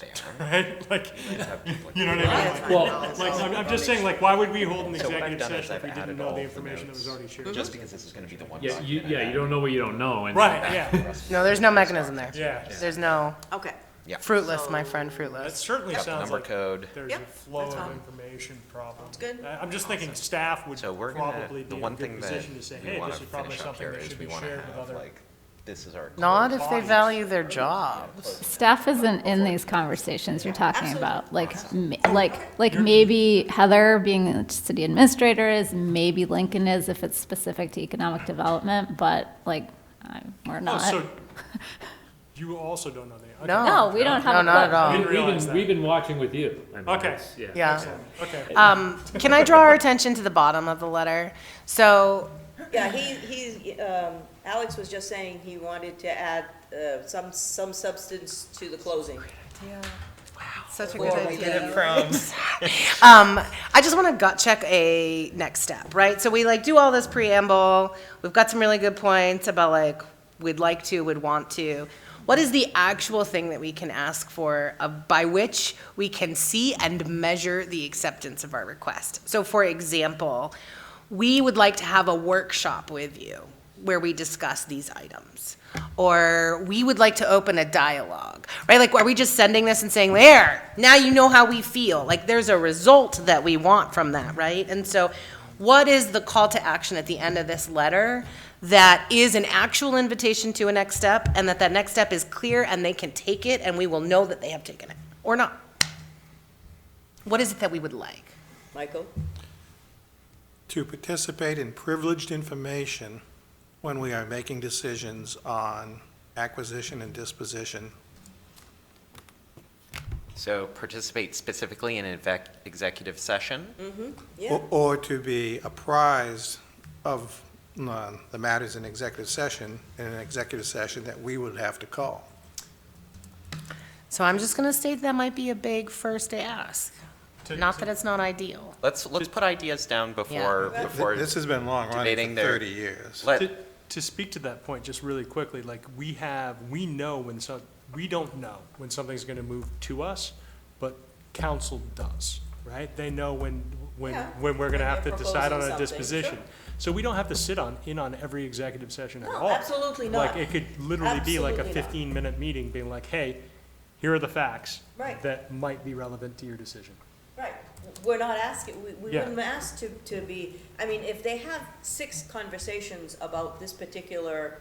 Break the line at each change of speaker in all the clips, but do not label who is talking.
there.
right? Like,
Have people-
you know what I mean?
Well-
Like, like, I'm, I'm just saying, like, why would we hold an
So what I've
executive
done is
session if
I've
we didn't
added
know
all
the
the
information that was
notes.
already shared?
Just because this is gonna be the one.
Yeah, you,
document I
yeah, you don't know what you don't know, and
Right, yeah,
No, there's no mechanism there.
yeah.
There's no
Okay,
Yeah.
fruitless, my
So-
friend,
That
fruitless.
certainly
Got the
sounds
number
like
code.
there's a
Yep,
flow
that's
of
fine.
information problem.
good.
I- I'm just thinking staff would
So we're gonna,
probably
the
be in a
one
good
thing that
position to say,
we
hey,
wanna
this is probably
finish up here
something that
is
should
we
be
wanna
shared with
have,
other.
like, this is our.
Not
core
if they
Bodies.
value their jobs.
Staff isn't in these conversations you're talking
Absolutely.
about, like, m- like, like maybe Heather being the city administrator is, maybe Lincoln is if it's specific to economic development, but like, I- we're
Oh,
not.
so you also don't know the. okay.
No.
No, we don't have a
No, not at
clue.
all.
we've
realize that.
been, we've been watching with you. I mean,
Okay.
it's- Yeah.
Yeah.
Okay.
Um, can I draw our attention to the bottom of the letter? So,
yeah, he, he's, um, Alex was just saying he wanted to add, uh, some, some substance to the closing.
such a good idea.
From.
Um, I just want to gut check a next step, right? So we like do all this preamble. We've got some really good points about like we'd like to, would want to. What is the actual thing that we can ask for of, by which we can see and measure the acceptance of our request? So, for example, we would like to have a workshop with you where we discuss these items. Or we would like to open a dialogue, right? Like, are we just sending this and saying, there, now you know how we feel? Like, there's a result that we want from that, right? And so, what is the call to action at the end of this letter that is an actual invitation to a next step and that that next step is clear and they can take it and we will know that they have taken it or not? What is it that we would like?
Michael?
to participate in privileged information when we are making decisions on acquisition and disposition.
So participate specifically in exec- executive session.
Yeah,
Or or to be apprised of uh, the matters in executive session, in an executive session that we would have to call.
So I'm just gonna state that might be a big first ask. Not that it's not ideal.
Let's, let's put ideas down before,
Yeah.
before.
This has been long running
debating
for
their-
30 years.
Let,
To, to speak to that point, just really quickly, like, we have, we know when some, we don't know when something's gonna move to us, but council does, right? They know when, when,
Yeah.
when we're gonna
When
have to
they're
decide on
proposing
a
something,
disposition.
sure.
So we don't have to sit on, in on every executive session at
No,
all.
absolutely not.
Like, it could literally be like a
Absolutely not.
fifteen-minute meeting, being like, hey, here are the facts
Right.
that might be relevant to your decision.
right. We're not asking, we, we
Yeah.
wouldn't ask to, to be, I mean, if they have six conversations about this particular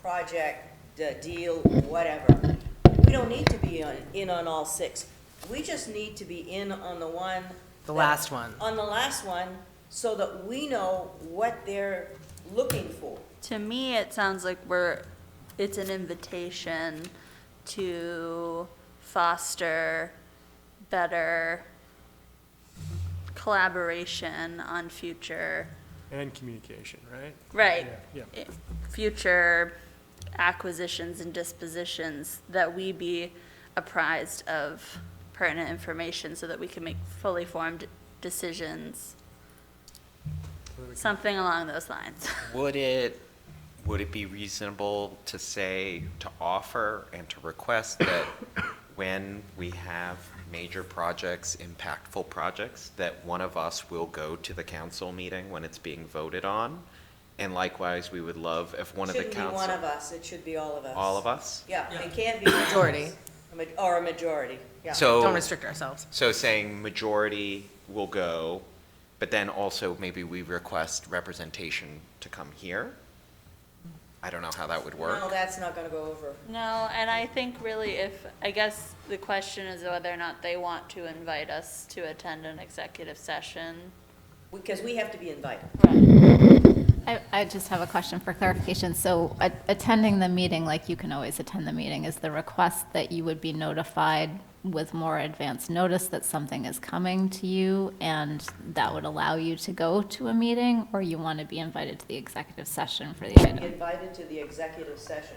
project, the deal, whatever, we don't need to be on, in on all six. We just need to be in on the one.
The
that-
last one.
On the last one, so that we know what they're looking for.
To me, it sounds like we're, it's an invitation to foster better collaboration on future,
And communication, right?
right? eh,
Yeah,
Future acquisitions and dispositions that we be apprised of pertinent information so that we can make fully formed decisions. Something along those lines.
Would it, would it be reasonable to say, to offer and to request that when we have major projects, impactful projects, that one of us will go to the council meeting when it's being voted on? And likewise, we would love if one of the
Shouldn't be
council.
one of us, it should be all of us.
All of us?
Yeah, it can't be. one of
Majority.
us. A ma- Or a majority, yeah.
Don't
So,
restrict ourselves.
so saying majority will go, but then also maybe we request representation to come here? I don't know how that would work.
No, that's not gonna go over.
No, and I think really if, I guess the question is whether or not they want to invite us to attend an executive session.
Because we have to be invited.
I, I just have a question for clarification. So a- attending the meeting, like you can always attend the meeting, is the request that you would be notified with more advance notice that something is coming to you and that would allow you to go to a meeting? Or you want to be invited to the executive session for the
Be
item?
invited to the executive session,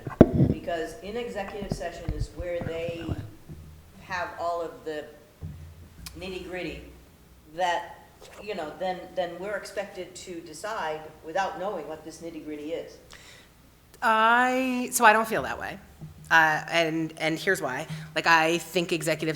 because in executive session is where they have all of the nitty-gritty that, you know, then, then we're expected to decide without knowing what this nitty-gritty is.
I, so I don't feel that way. Uh, and, and here's why. Like, I think executive